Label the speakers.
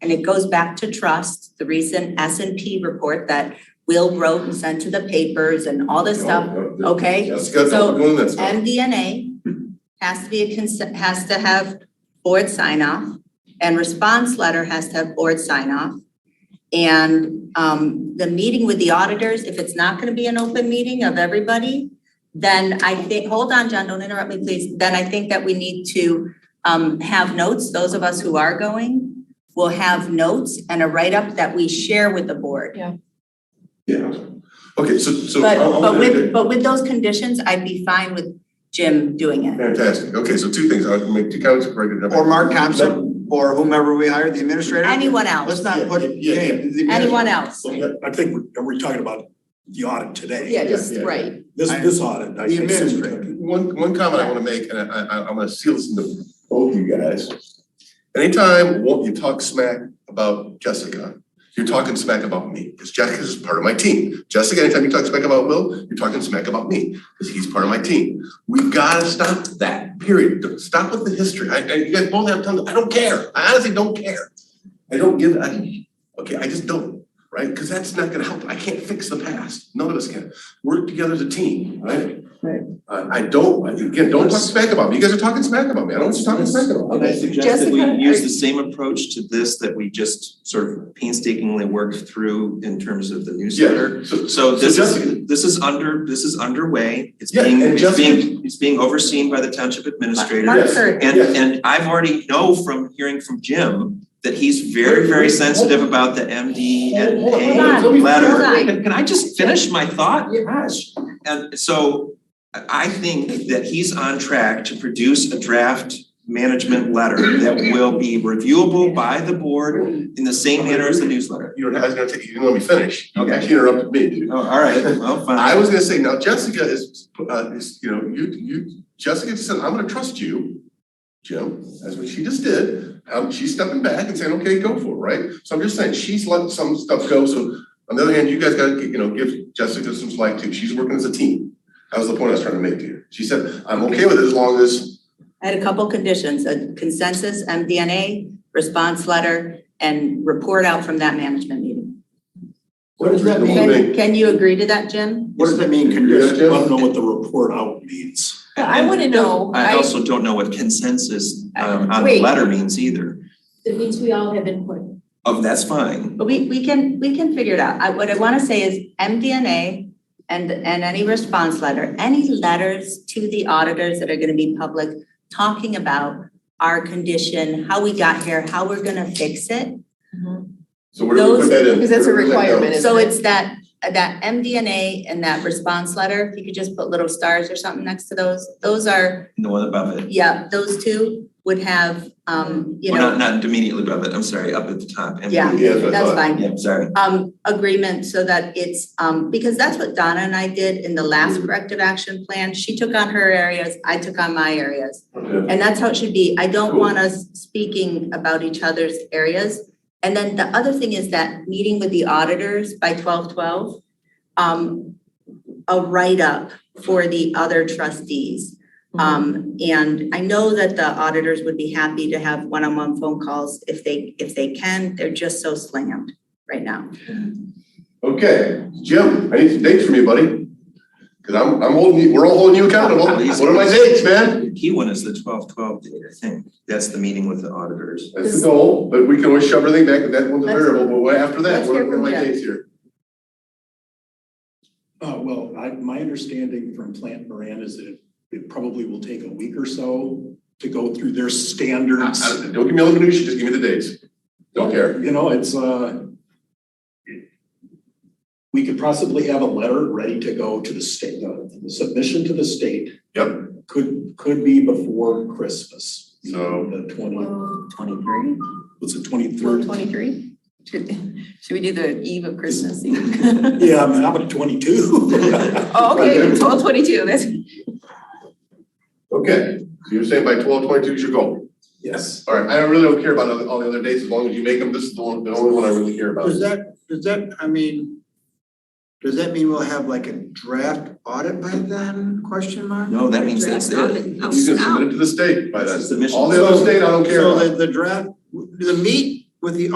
Speaker 1: And it goes back to trust, the recent S and P report that Will wrote and sent to the papers and all
Speaker 2: Oh,
Speaker 1: this stuff. okay?
Speaker 2: That's good,
Speaker 1: So,
Speaker 2: I'm doing this.
Speaker 1: MDNA has to be a consent, has to have board sign off and response letter has to have board sign off. And um the meeting with the auditors, if it's not gonna be an open meeting of everybody, then I think, hold on, John, don't interrupt me, please. Then I think that we need to um have notes, those of us who are going will have notes and a write-up that we share with the board.
Speaker 2: Yeah, okay, so, so. oh,
Speaker 1: But
Speaker 2: I'll- I'll
Speaker 1: but with
Speaker 2: interject.
Speaker 1: but with those conditions, I'd be fine with Jim doing it.
Speaker 2: Fantastic, okay, so two things, I'll make two comments, correct it.
Speaker 3: Or Mark Thompson, or whomever we hire, the administrator.
Speaker 1: Anyone else,
Speaker 3: Let's not put,
Speaker 2: Yeah, yeah, yeah.
Speaker 3: hey, the-
Speaker 1: anyone else.
Speaker 4: So that- I think, we're- are we talking about the audit today?
Speaker 5: Yeah, just,
Speaker 2: yeah, yeah.
Speaker 5: right,
Speaker 4: This, this audit. I-
Speaker 3: The
Speaker 4: I said we took-
Speaker 3: administrator.
Speaker 2: Uh, One, one comment I wanna make, and I, I, I'm gonna seal this into both you guys. Anytime wa- you talk smack about Jessica, you're talking smack about me, because Jessica's part of my team. Jessica, anytime you talk smack about Will, you're talking smack about me, because he's part of my team. We've gotta stop that, period. Stop with the history. I, I, you guys both have tons, of- I don't care. I honestly don't care. I don't give, I, okay, I just don't, right? Because that's not gonna help. I can't fix the past. None of us can. Work together as a team, right? Uh, I don't, I- again, don't talk smack about me, you guys are talking smack about me, I don't want you talking smack about
Speaker 6: And I
Speaker 2: me.
Speaker 6: suggest that we
Speaker 5: Jessica,
Speaker 6: use
Speaker 5: are-
Speaker 6: the same approach to this that we just sort of painstakingly worked through in terms of the newsletter.
Speaker 2: Yeah, so,
Speaker 6: So this
Speaker 2: Jessica-
Speaker 6: is, this is under, this is underway, it's
Speaker 2: Yeah,
Speaker 6: being,
Speaker 2: and
Speaker 6: it's
Speaker 2: Jessica-
Speaker 6: being, it's being overseen by the township administrator.
Speaker 1: Mark
Speaker 2: Yes.
Speaker 1: Curry,
Speaker 6: And
Speaker 2: Yes.
Speaker 6: and I've already know from hearing from Jim that he's very, very sensitive about the MD and
Speaker 2: Hold on, hold
Speaker 6: A
Speaker 1: on,
Speaker 6: letter.
Speaker 1: let
Speaker 2: me finish.
Speaker 6: Can can I just finish my thought? Gosh. And so I I think that he's on track to produce a draft management letter that will be reviewable by the board in the same manner as the newsletter.
Speaker 2: you were, I was gonna take, you didn't let me finish, you
Speaker 6: Okay.
Speaker 2: actually interrupted me, dude.
Speaker 6: Oh, all right, well, fine.
Speaker 2: I was gonna say, now Jessica is, uh, is, you know, you, you, Jessica said, I'm gonna trust you, Jim, that's what she just did. Um, she's stepping back and saying, okay, go for it, right? So I'm just saying, she's letting some stuff go, so on the other hand, you guys gotta, you know, give Jessica some slack too, she's working as a team. That was the point I was trying to make to you. She said, I'm okay with it as long as
Speaker 1: I had a couple conditions, a consensus, MDNA, response letter, and report out from that management meeting.
Speaker 3: What does that mean?
Speaker 1: Can, can you agree to that, Jim?
Speaker 3: What does that mean,
Speaker 4: I
Speaker 3: condition?
Speaker 4: don't know what the report out means.
Speaker 5: I wanna know,
Speaker 6: I
Speaker 5: I,
Speaker 6: also don't know what consensus um on the
Speaker 5: Wait.
Speaker 6: letter means either.
Speaker 7: It means we all have input.
Speaker 6: Oh, that's fine.
Speaker 1: But we, we can, we can figure it out. I, what I wanna say is MDNA and, and any response letter, any letters to the auditors that are gonna be public, talking about our condition, how we got here, how we're gonna fix it.
Speaker 2: So where do we
Speaker 1: Those-
Speaker 2: put that in?
Speaker 5: because that's a
Speaker 2: Where do we let go?
Speaker 5: requirement,
Speaker 1: So
Speaker 5: isn't it?
Speaker 1: it's that, that MDNA and that response letter, if you could just put little stars or something next to those, those are,
Speaker 6: No one above it.
Speaker 1: yeah, those two would have, um, you
Speaker 6: Well, not
Speaker 1: know,
Speaker 6: not immediately above it, I'm sorry, up at the top. and-
Speaker 1: Yeah.
Speaker 2: Yeah, that's what I
Speaker 1: that's
Speaker 2: thought.
Speaker 1: fine.
Speaker 6: Yeah, sorry.
Speaker 1: Um, agreement so that it's, um, because that's what Donna and I did in the last
Speaker 5: Mm.
Speaker 1: corrective action plan. She took on her areas, I took on my areas.
Speaker 2: Okay.
Speaker 1: And that's how it should be. I don't
Speaker 2: Cool.
Speaker 1: want us speaking about each other's areas. And then the other thing is that meeting with the auditors by twelve twelve, um, a write-up for the other trustees. Um, and I know that the auditors would be happy to have one-on-one phone calls if they, if they can. They're just so slammed right now.
Speaker 2: Okay, Jim, I need some dates from you, buddy. Cause I'm, I'm holding you, we're all holding you accountable. What are my dates, man?
Speaker 6: The key one is the twelve twelve date, I think. That's the meeting with the auditors.
Speaker 2: That's the goal, but we can always shove everything back, that one's a
Speaker 1: Let's-
Speaker 2: variable, but what after that,
Speaker 1: let's
Speaker 2: what
Speaker 1: hear
Speaker 2: are what are my
Speaker 1: from Jim.
Speaker 2: dates here?
Speaker 4: Uh, well, I, my understanding from Plant Moran is that it probably will take a week or so to go through their
Speaker 2: I-
Speaker 4: standards.
Speaker 2: I- Don't give me all the minutia, just give me the dates. Don't care.
Speaker 4: You know, it's, uh, we could possibly have a letter ready to go to the state, uh, the submission to the state.
Speaker 2: Yep.
Speaker 4: Could, could be before Christmas.
Speaker 2: So-
Speaker 4: The twenty,
Speaker 5: Twenty-three,
Speaker 4: was it
Speaker 5: Well,
Speaker 4: twenty-third?
Speaker 5: twenty-three? Should, should we do the eve of Christmas Eve?
Speaker 4: Yeah, I mean, I'm at twenty-two.
Speaker 5: Oh, okay, twelve twenty-two, that's,
Speaker 2: Okay, so you're saying by twelve twenty-two is your goal?
Speaker 4: Yes.
Speaker 2: All right, I really don't care about other- all the other dates as long as you make them. This is the one, the only one I really care about.
Speaker 3: Does
Speaker 1: Oh,
Speaker 3: that, does that, I mean, does that mean we'll have like a draft audit by then, question mark?
Speaker 6: No, that means that's it.
Speaker 5: I'll
Speaker 2: You can
Speaker 5: stop.
Speaker 2: submit it to the state by
Speaker 6: That's
Speaker 2: then.
Speaker 6: the submission.
Speaker 2: All the other state, I don't care about.
Speaker 3: So the, the draft, the meet with the